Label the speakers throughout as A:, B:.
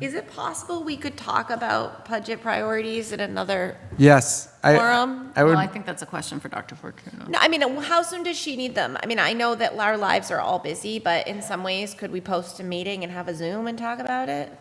A: Is it possible we could talk about budget priorities in another
B: Yes. I-
A: Quorum?
B: I
C: Well, I
B: would,
C: think that's a question for Dr. Fortuna.
A: No, I mean, how soon does she need them? I mean, I know that our lives are all busy, but in some ways, could we post a meeting and have a Zoom and talk about it?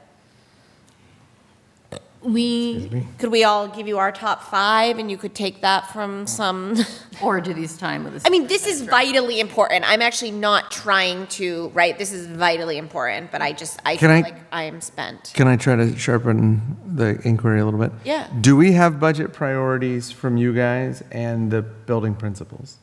A: We, could we all give you our top five and you could take that from some,
C: Or do these time with the.
A: I mean, this is vitally important. I'm actually not trying to, right, this is vitally important, but I just, I
B: Can
A: feel
B: I-
A: like I am spent.
B: can I try to sharpen the inquiry a little bit?
A: Yeah.
B: Do we have budget priorities from you guys and the building principals?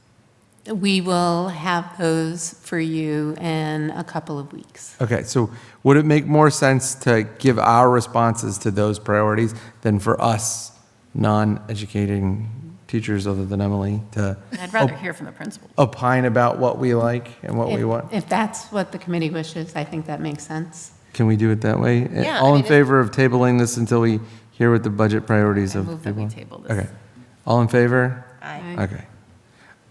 D: We will have those for you in a couple of weeks.
B: Okay, so would it make more sense to give our responses to those priorities than for us, non-educating teachers other than Emily, to
C: I'd
B: Oh.
C: rather hear from the principal.
B: opine about what we like and what we
D: If-
B: want?
D: If that's what the committee wishes, I think that makes sense.
B: Can we do it that way? Uh,
A: Yeah, I
B: All in
A: mean, it-
B: favor of tabling this until we hear what the budget priorities
C: I
B: of
C: move that we
B: people-
C: table this.
B: Okay. All in favor?
A: Aye.
B: Okay.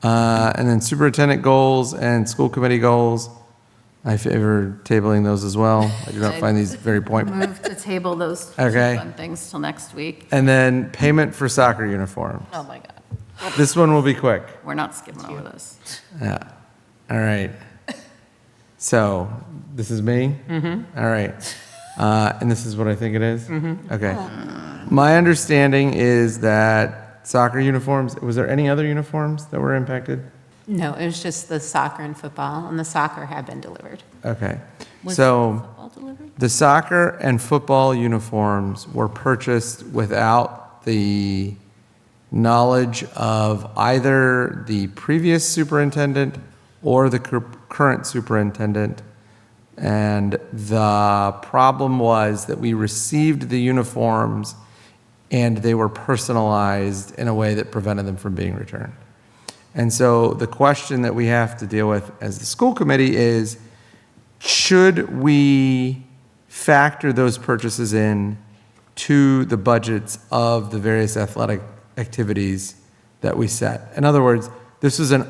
B: Uh, And then superintendent goals and school committee goals, I favor tabling those as well. I do not find these very point.
C: Move to table those two
B: Okay.
C: fun things till next week.
B: And then payment for soccer uniform.
C: Oh, my God.
B: This one will be quick.
C: We're not skipping over this.
B: Yeah. All right. So this is me. Mm-hmm. right. Uh, and this is what I think it is? Okay. My understanding is that soccer uniforms. Was there any other uniforms that were impacted?
D: No, it was just the soccer and football, and the soccer have been delivered.
B: Okay.
C: Was
B: so
C: football delivered?
B: the soccer and football uniforms were purchased without the knowledge of either the previous superintendent or the cur- current superintendent. And the problem was that we received the uniforms and they were personalized in a way that prevented them from being returned. And so the question that we have to deal with as the school committee is, should we factor those purchases in to the budgets of the various athletic activities that we set? In other words, this is an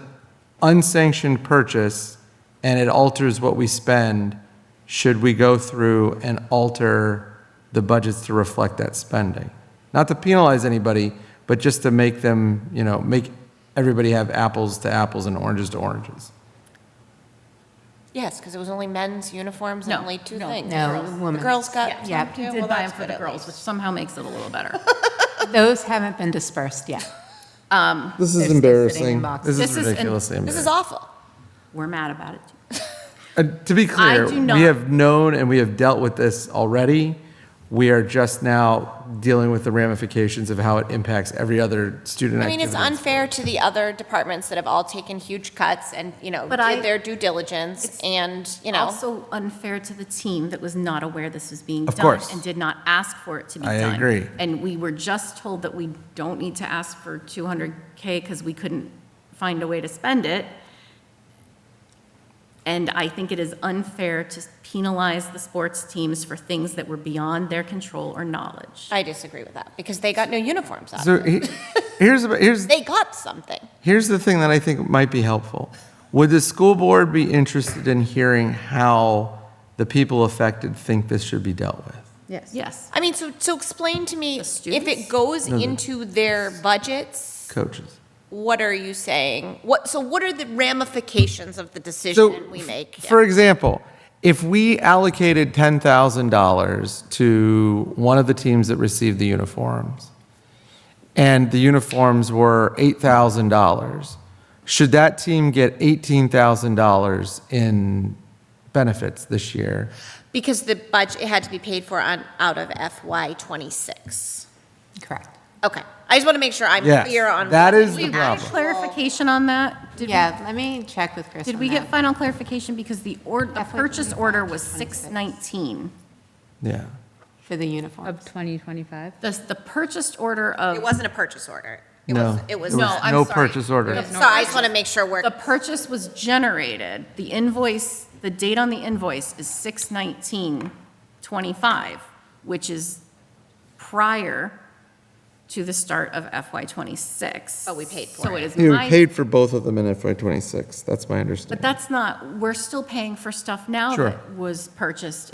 B: unsanctioned purchase and it alters what we spend. Should we go through and alter the budgets to reflect that spending? Not to penalize anybody, but just to make them, you know, make everybody have apples to apples and oranges to oranges.
A: Yes, because it was only men's uniforms and
C: No,
A: only two
C: no,
A: things.
D: no,
A: Girls. The
D: women's.
A: girls got
D: Yeah,
A: some
D: you
A: too?
C: Did
A: Well,
C: buy them
A: that's
C: for
A: good
C: the
A: at
C: girls, which
A: least.
C: somehow makes it a little better.
D: Those haven't been dispersed yet.
C: Um,
B: This
D: They're
B: is
D: still sitting
B: embarrassing.
D: in boxes.
B: This
C: This
B: is
C: is an-
B: ridiculously
A: This
B: embarrassing.
A: is awful.
C: We're mad about it. too.
B: Uh, To be clear,
C: do
B: we
C: not-
B: have known and we have dealt with this already. We are just now dealing with the ramifications of how it impacts every other student
A: I mean, it's
B: activity.
A: unfair to the other departments that have all taken huge cuts and, you know,
C: But I-
A: did their due diligence
C: It's
A: and, you know,
C: Also unfair to the team that was not aware this was being
B: Of
C: done.
B: course.
C: And did not ask for it to be
B: I
C: done.
B: agree.
C: And we were just told that we don't need to ask for 200K because we couldn't find a way to spend it. And I think it is unfair to penalize the sports teams for things that were beyond their control or knowledge.
A: I disagree with that because they got no uniforms out of
B: So
A: it.
B: he- here's, about- here's,
A: They got something.
B: Here's the thing that I think might be helpful. Would the school board be interested in hearing how the people affected think this should be dealt with?
C: Yes.
A: I mean, so, so explain to me,
C: The
A: if
C: students?
A: it goes into their budgets,
B: Coaches.
A: what are you saying? What, so what are the ramifications of the
B: So,
A: decision we
B: f-
A: make?
B: for example, if we allocated $10,000 to one of the teams that received the uniforms, and the uniforms were $8,000, should that team get $18,000 in benefits this year?
A: Because the budget, it had to be paid for on, out of FY twenty-six.
D: Correct.
A: Okay, I just want to make sure I'm
B: Yes,
A: clear on.
B: that
A: what
B: is the problem.
C: Clarification on that? Did we-
D: Yeah, let me check with Chris
C: Did
D: on
C: we
D: that.
C: get final clarification? Because the or, the
D: Definitely
C: purchase
D: 25,
C: order was
D: 26.
C: 619.
B: Yeah.
D: For the uniforms.
E: Of 2025?
C: The, the purchase order
A: It
C: of,
A: wasn't a purchase order. It
B: No,
A: was- It was,
B: it was
A: no,
B: No,
A: I'm
B: no
A: sorry.
B: purchase order. There was
A: So I just want to make sure we're,
C: the purchase was generated, the invoice, the date on the invoice is 6/19/25, which is prior to the start of FY '26.
A: But we paid for
C: So
A: it.
C: it is
B: You
C: my,
B: paid for both of them in FY '26, that's my
C: but
B: understanding.
C: that's not, we're still paying for stuff now
B: Sure.
C: that was purchased